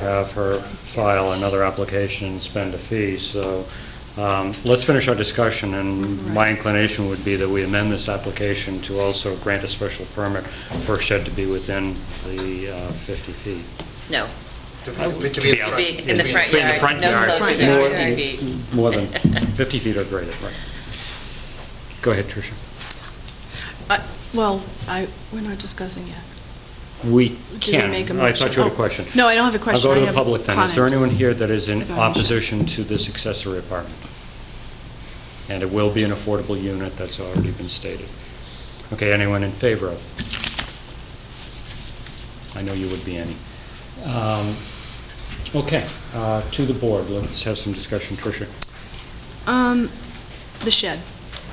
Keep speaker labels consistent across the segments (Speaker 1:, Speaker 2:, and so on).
Speaker 1: have her file another application and spend a fee, so um, let's finish our discussion, and my inclination would be that we amend this application to also grant a special permit for a shed to be within the uh, 50 feet.
Speaker 2: To
Speaker 1: I would-
Speaker 2: be- to
Speaker 1: to be
Speaker 2: be in the
Speaker 1: outside.
Speaker 2: front.
Speaker 1: In the
Speaker 2: To be
Speaker 1: front
Speaker 2: in the
Speaker 1: yard. front yard.
Speaker 3: No closer
Speaker 1: More-
Speaker 3: than 50 feet.
Speaker 1: More than 50 feet or greater, right. Go ahead, Tricia.
Speaker 3: Well, I, we're not discussing yet.
Speaker 1: We
Speaker 3: Do we
Speaker 1: can,
Speaker 3: make a
Speaker 1: I thought you
Speaker 3: motion?
Speaker 1: had a
Speaker 3: Oh,
Speaker 1: question.
Speaker 3: No, I don't have a question.
Speaker 1: I'll go
Speaker 3: I
Speaker 1: to the
Speaker 3: have
Speaker 1: public then. Is there
Speaker 3: comment.
Speaker 1: anyone here that is in
Speaker 3: About
Speaker 1: opposition to this accessory apartment? And it will be an affordable unit, that's already been stated. Okay, anyone in favor of? I know you would be any. Um, Okay, uh, to the board, let's have some discussion. Tricia?
Speaker 3: Um, the shed.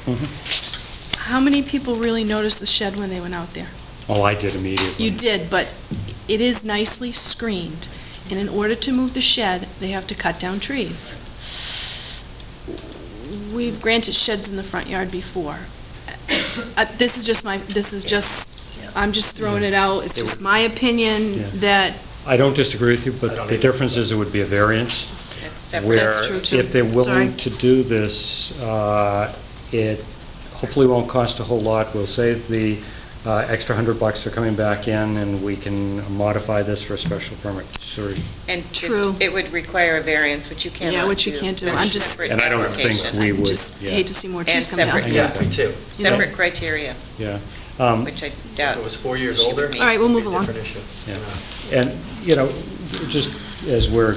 Speaker 1: Mm-hmm.
Speaker 3: How many people really noticed the shed when they went out there?
Speaker 1: Oh, I did immediately.
Speaker 3: You did, but it is nicely screened, and in order to move the shed, they have to cut down trees. We've granted sheds in the front yard before. Uh, This is just my, this is just, I'm just throwing it out, it's just my opinion
Speaker 1: Yeah.
Speaker 3: that,
Speaker 1: I don't disagree with you,
Speaker 2: I
Speaker 1: but
Speaker 2: don't
Speaker 1: the
Speaker 2: either.
Speaker 1: difference is it would be a variance.
Speaker 4: That's separate.
Speaker 1: where
Speaker 3: That's true, too.
Speaker 1: if they're
Speaker 3: Sorry.
Speaker 1: willing to do this, uh, it hopefully won't cost a whole lot. We'll save the uh, extra hundred bucks for coming back in, and we can modify this for a special permit. Sorry.
Speaker 4: And this-
Speaker 3: True.
Speaker 4: it would require a variance, which you cannot do.
Speaker 3: Yeah, which you can't do.
Speaker 4: That's
Speaker 3: I'm just-
Speaker 4: separate
Speaker 1: And I don't think
Speaker 4: application.
Speaker 1: we
Speaker 3: I
Speaker 1: would,
Speaker 3: just
Speaker 1: yeah.
Speaker 3: hate to see more
Speaker 4: And
Speaker 3: trees come down.
Speaker 4: separate.
Speaker 2: Yeah, me too.
Speaker 4: Separate criteria,
Speaker 1: Um,
Speaker 4: which I
Speaker 2: If
Speaker 4: doubt.
Speaker 2: it was four years
Speaker 4: Should
Speaker 2: older.
Speaker 4: be.
Speaker 3: All right, we'll move
Speaker 2: it'd be a
Speaker 3: along.
Speaker 2: Different issue.
Speaker 1: Yeah. And, you know, just as we're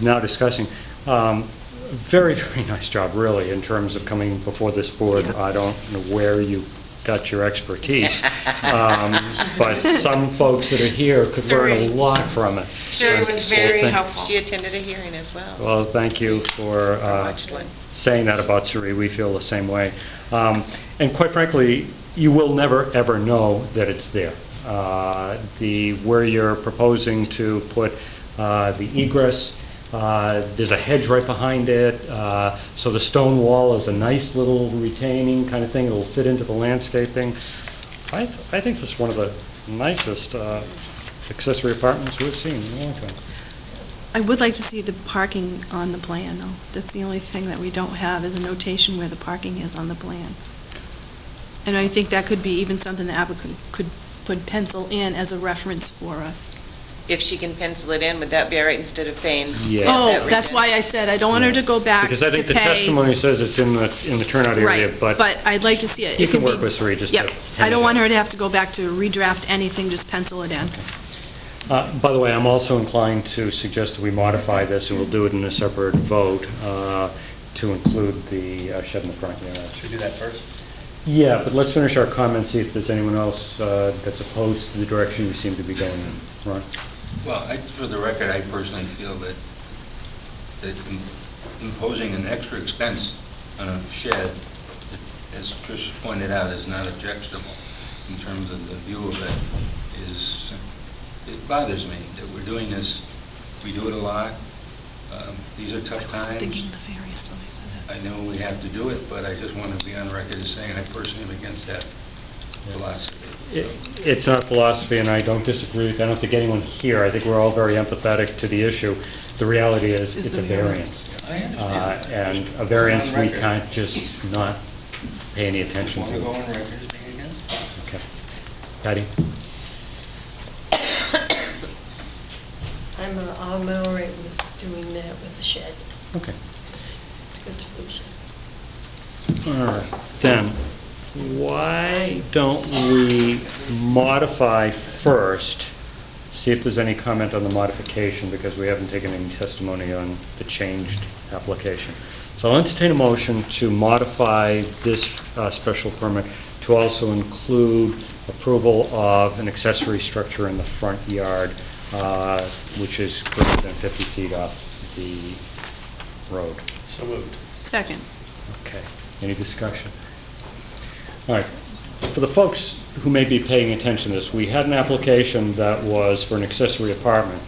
Speaker 1: now discussing, um, very, very nice job, really, in terms of coming before this board.
Speaker 3: Yeah.
Speaker 1: I don't know where you got your expertise, um, but some folks that are here could learn a
Speaker 4: Sorry.
Speaker 1: lot from it.
Speaker 4: Sherry was
Speaker 1: So
Speaker 4: very
Speaker 1: thank-
Speaker 4: helpful. She attended a hearing as well.
Speaker 1: Well, thank you for
Speaker 4: I
Speaker 1: uh,
Speaker 4: watched one.
Speaker 1: saying that about Suri. We feel the same way. Um, And quite frankly, you will never, ever know that it's there. Uh, The, where you're proposing to put uh, the egress, uh, there's a hedge right behind it, uh, so the stone wall is a nice little retaining kind of thing, it'll fit into the landscaping. I, th- I think this is one of the nicest uh, accessory apartments we've seen in a long time.
Speaker 3: I would like to see the parking on the plan, though. That's the only thing that we don't have, is a notation where the parking is on the plan. And I think that could be even something the applicant could, could pencil in as a reference for us.
Speaker 4: If she can pencil it in, would that be all right instead of paying?
Speaker 1: Yeah.
Speaker 3: Oh, that's why I said I don't want her to go back to pay.
Speaker 1: Because I think the testimony says it's in the, in the turnout area,
Speaker 3: Right,
Speaker 1: but
Speaker 3: but I'd like to see it.
Speaker 1: you
Speaker 3: It could
Speaker 1: can work
Speaker 3: be-
Speaker 1: with Sri just to.
Speaker 3: Yep, I don't want her to have to go back to redraft anything, just pencil it in.
Speaker 1: Uh, By the way, I'm also inclined to suggest that we modify this, and we'll do it in a separate vote, uh, to include the uh, shed in the front yard.
Speaker 2: Should we do that first?
Speaker 1: Yeah, but let's finish our comments, see if there's anyone else uh, that's opposed to the direction we seem to be going in. Ron?
Speaker 5: Well, I, for the record, I personally feel that, that im- imposing an extra expense on a shed, as Tricia pointed out, is not objectionable in terms of the view of it, is, it bothers me that we're doing this, we do it a lot, um, these are tough
Speaker 3: I was thinking
Speaker 5: times,
Speaker 3: the variance when I said that.
Speaker 5: I know we have to do it, but I just want to be on record as saying I personally am against that philosophy.
Speaker 1: It's not philosophy, and I don't disagree with, I don't think anyone here, I think we're all very empathetic to the issue. The reality is,
Speaker 3: Is
Speaker 1: it's a
Speaker 3: the
Speaker 1: variance.
Speaker 3: variance.
Speaker 5: I
Speaker 1: Uh,
Speaker 5: understand.
Speaker 1: And
Speaker 5: Just
Speaker 1: a variance,
Speaker 5: on
Speaker 1: we
Speaker 5: record.
Speaker 1: can't just not pay any
Speaker 5: Just
Speaker 1: attention
Speaker 5: want to go
Speaker 1: to.
Speaker 5: on record as being against it.
Speaker 1: Patty?
Speaker 6: I'm, uh, I'm all right with doing that with the shed.
Speaker 1: Okay.
Speaker 6: It's a good solution.
Speaker 1: All right, then, why don't we modify first, see if there's any comment on the modification, because we haven't taken any testimony on the changed application. So I'll entertain a motion to modify this uh, special permit to also include approval of an accessory structure in the front yard, uh, which is greater than 50 feet off the road.
Speaker 2: So moved.
Speaker 3: Second,
Speaker 1: Okay, any discussion? All right, for the folks who may be paying attention to this, we had an application that was for an accessory apartment,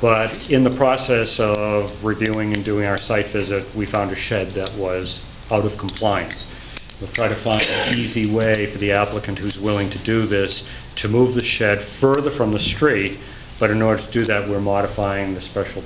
Speaker 1: but in the process of reviewing and doing our site visit, we found a shed that was out of compliance. We'll try to find an easy way for the applicant who's willing to do this to move the shed further from the street, but But in order to do that, we're modifying the special